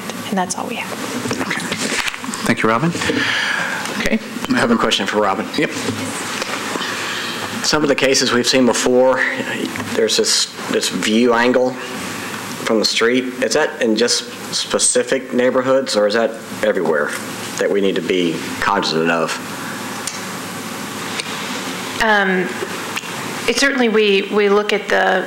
And that's all we have. Thank you, Robin. Okay. I have a question for Robin. Yep. Some of the cases we've seen before, there's this, this view angle from the street. Is that in just specific neighborhoods, or is that everywhere that we need to be cognizant of? It certainly, we, we look at the,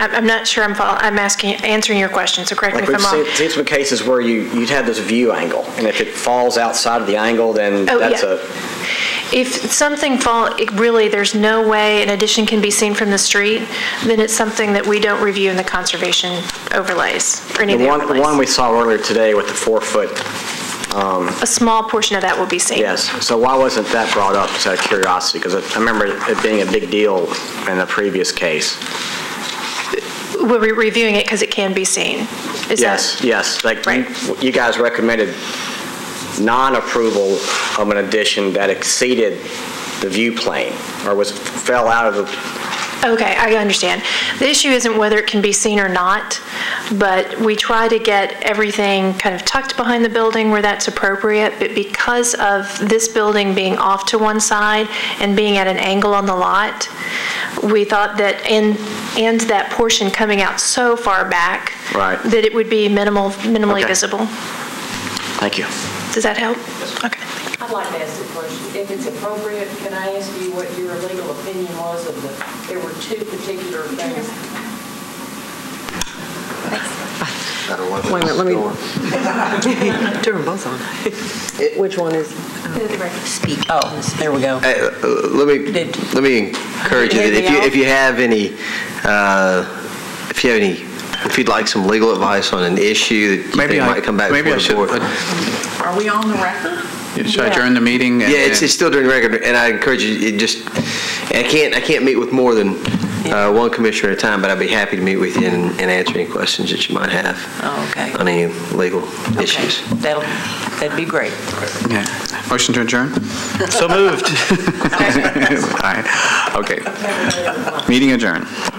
I'm I'm not sure I'm, fol- I'm asking, answering your question, so correct me Like, if we've I'm seen, wrong. seen some cases where you, you'd have this view angle, and if it falls outside of the angle, then Oh, that's yeah. a, If something fall, it really, there's no way an addition can be seen from the street, then it's something that we don't review in the conservation overlays, or any of the the one, the one we overlays. saw earlier today with the four-foot A small portion of that will be seen. Yes, so why wasn't that brought up, just out of curiosity? Because I remember it being a big deal in the previous case. We're re- reviewing it because it can be seen. Is that- Yes, yes, like, you- Right. you guys recommended non-approval of an addition that exceeded the view plane, or was, fell out of the, Okay, I understand. The issue isn't whether it can be seen or not, but we try to get everything kind of tucked behind the building where that's appropriate, but because of this building being off to one side and being at an angle on the lot, we thought that, and, and that portion coming out so far back. Right. That it would be minimal, minimally Okay. visible. thank you. Does that help? Okay. I'd like to ask a question. If it's appropriate, can I ask you what your legal opinion was of the, there were two particular things? Wait a minute, let me. Turn both on. Which one is? Speak. Oh, there we go. Hey, uh, Let me, Did- let me encourage you, that if you, if you have any, uh, if you have any, if you'd like some legal advice on an issue that you Maybe think I- might come back maybe I before the should- board. Are we on the record? Should I adjourn the meeting? and- Yeah, it's, it's still during record, and I encourage you, it just, I can't, I can't meet with more than uh, one commissioner at a time, but I'd be happy to meet with you and and answer any questions that you might have Oh, okay. on any legal Okay, issues. That'll, that'd be great. Yeah. Motion to adjourn? So moved. All right, okay. Meeting adjourned.